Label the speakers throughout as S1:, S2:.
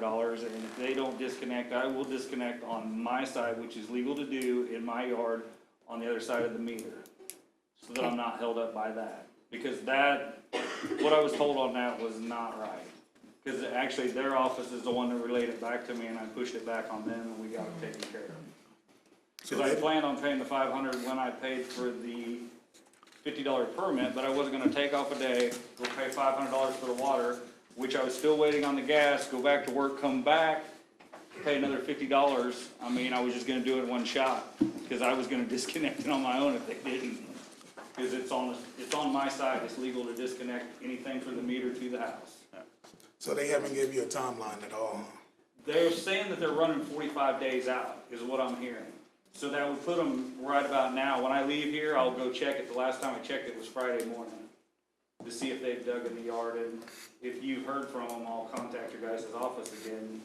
S1: wires, and if they don't disconnect, I will disconnect on my side, which is legal to do in my yard, on the other side of the meter. So that I'm not held up by that, because that, what I was told on that was not right. Cause actually, their office is the one that relayed it back to me, and I pushed it back on them, and we got it taken care of. Cause I planned on paying the five hundred when I paid for the fifty dollar permit, but I wasn't gonna take off a day, go pay five hundred dollars for the water, which I was still waiting on the gas, go back to work, come back, pay another fifty dollars. I mean, I was just gonna do it in one shot, cause I was gonna disconnect it on my own if they didn't. Cause it's on, it's on my side, it's legal to disconnect anything from the meter to the house.
S2: So they haven't give you a timeline at all, huh?
S1: They're saying that they're running forty-five days out, is what I'm hearing. So that would put them right about now. When I leave here, I'll go check it. The last time I checked, it was Friday morning to see if they've dug in the yard, and if you've heard from them, I'll contact your guys' office again.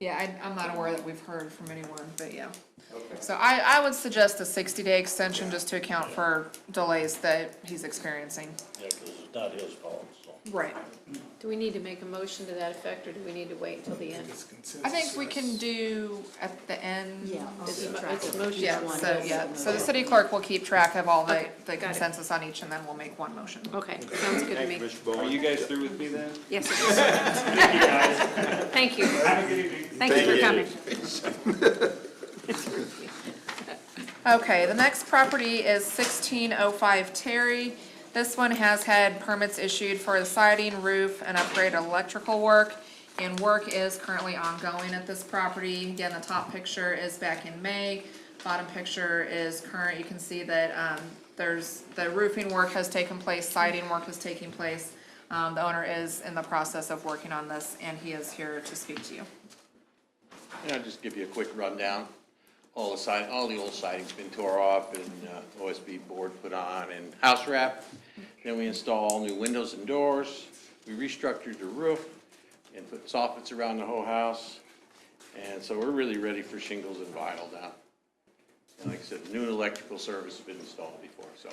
S3: Yeah, I, I'm not aware that we've heard from anyone, but yeah.
S1: Okay.
S3: So I, I would suggest a sixty-day extension just to account for delays that he's experiencing.
S4: Yeah, 'cause it's not his fault, so.
S3: Right.
S5: Do we need to make a motion to that effect, or do we need to wait until the end?
S2: It's
S3: I think we can
S2: consensus.
S3: do at the end.
S6: Yeah. I'll
S5: It's
S6: keep
S5: mo-
S6: track
S5: it's
S6: of it.
S5: motion
S3: Yeah,
S5: one,
S3: so,
S5: yes.
S3: yeah, so the city clerk will keep track of all the,
S5: Okay,
S3: the
S5: got it.
S3: consensus on each, and then we'll make one motion.
S5: Okay, sounds good to
S7: Thank you,
S5: me.
S7: Mr.
S1: Are
S7: Bowen.
S1: you guys through with me then?
S5: Yes, it
S1: Thank you, guys.
S5: is. Thank you.
S1: Have a good evening.
S5: Thank you for coming.
S3: Okay, the next property is sixteen oh five Terry. This one has had permits issued for the siding, roof, and upgrade electrical work. And work is currently ongoing at this property. Again, the top picture is back in May. Bottom picture is current. You can see that, um, there's, the roofing work has taken place, siding work is taking place. Um, the owner is in the process of working on this, and he is here to speak to you.
S7: Yeah, I'll just give you a quick rundown. All the side, all the old siding's been tore off and uh, OSB board put on and house wrap. Then we install all new windows and doors. We restructured the roof and put soffits around the whole house. And so we're really ready for shingles and vinyl now. And like I said, new electrical service has been installed before, so.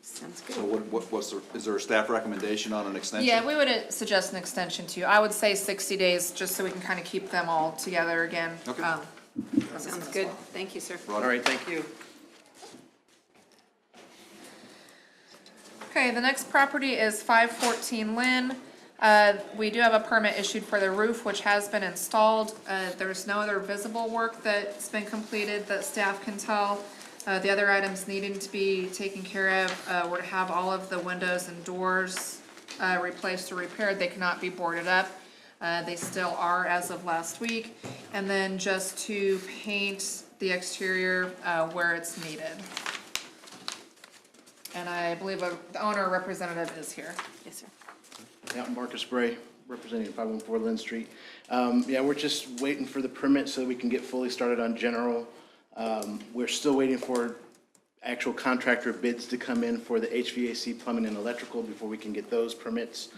S5: Sounds
S8: So
S5: good.
S8: what, what, what's the, is there a staff recommendation on an extension?
S3: Yeah, we would uh, suggest an extension to you. I would say sixty days, just so we can kind of keep them all together again.
S8: Okay.
S3: Um,
S5: Sounds good. Thank you, sir.
S7: All right, thank you.
S3: Okay, the next property is five fourteen Lynn. Uh, we do have a permit issued for the roof, which has been installed. Uh, there's no other visible work that's been completed that staff can tell. Uh, the other items needing to be taken care of, uh, were to have all of the windows and doors, uh, replaced or repaired. They cannot be boarded up. Uh, they still are as of last week. And then just to paint the exterior, uh, where it's needed. And I believe a- the owner representative is here.
S5: Yes, sir.
S9: Yeah, Marcus Bray, representing 514 Lynn Street. Um, Yeah, we're just waiting for the permit so that we can get fully started on general. Um, We're still waiting for actual contractor bids to come in for the HVAC, plumbing, and electrical before we can get those permits.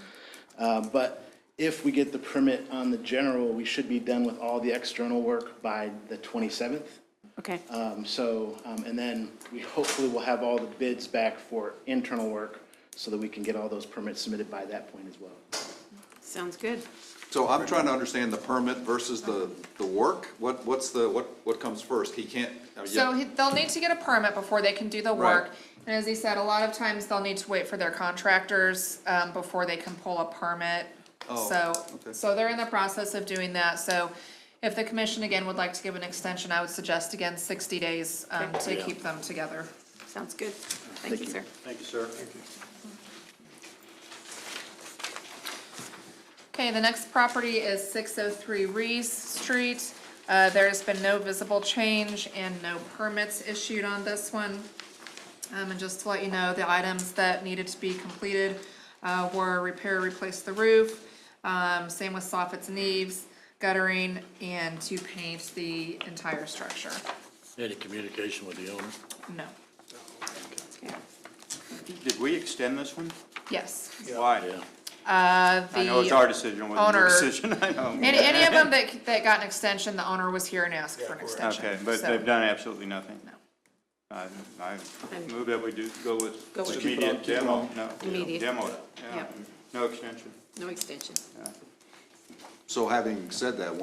S9: Uh, But if we get the permit on the general, we should be done with all the external work by the 27th.
S5: Okay.
S9: Um, So, um, and then we hopefully will have all the bids back for internal work so that we can get all those permits submitted by that point as well.
S5: Sounds good.
S8: So I'm trying to understand the permit versus the, the work, what, what's the, what, what comes first? He can't, I mean,
S3: So
S8: Oh, yeah,
S3: he- they'll need to get a permit before they can do the
S8: Right.
S3: work. And as he said, a lot of times they'll need to wait for their contractors, um, before they can pull a permit.
S8: Oh,
S3: So,
S8: okay.
S3: so they're in the process of doing that, so if the commission again would like to give an extension, I would suggest again sixty days, um, to
S4: Yeah.
S3: keep them together.
S5: Sounds good. Thank you, sir.
S4: Thank you, sir.
S3: Okay, the next property is six oh three Reese Street. Uh, there has been no visible change and no permits issued on this one. Um, and just to let you know, the items that needed to be completed, uh, were repair, replace the roof, um, same with soffits and eaves, guttering, and to paint the entire structure.
S4: Any communication with the owner?
S3: No,
S5: Yeah.
S7: Did we extend this one?
S3: yes.
S7: Why?
S4: Yeah.
S3: Uh, the.
S7: I know it's our decision, it wasn't
S3: owner-
S7: your decision, I know.
S3: Any, any of them that, that got an extension, the owner was here and asked for an extension.
S7: Okay, but
S3: so-
S7: they've done absolutely nothing?
S3: No.
S7: I, I move that we do go with
S5: Go with- Just keep
S4: it on,
S7: immediate
S4: keep it
S7: demo,
S4: on.
S7: no.
S5: Immediate.
S7: Demo, it, yeah,
S5: Yep.
S7: no extension.
S5: No extension.
S8: so having said that,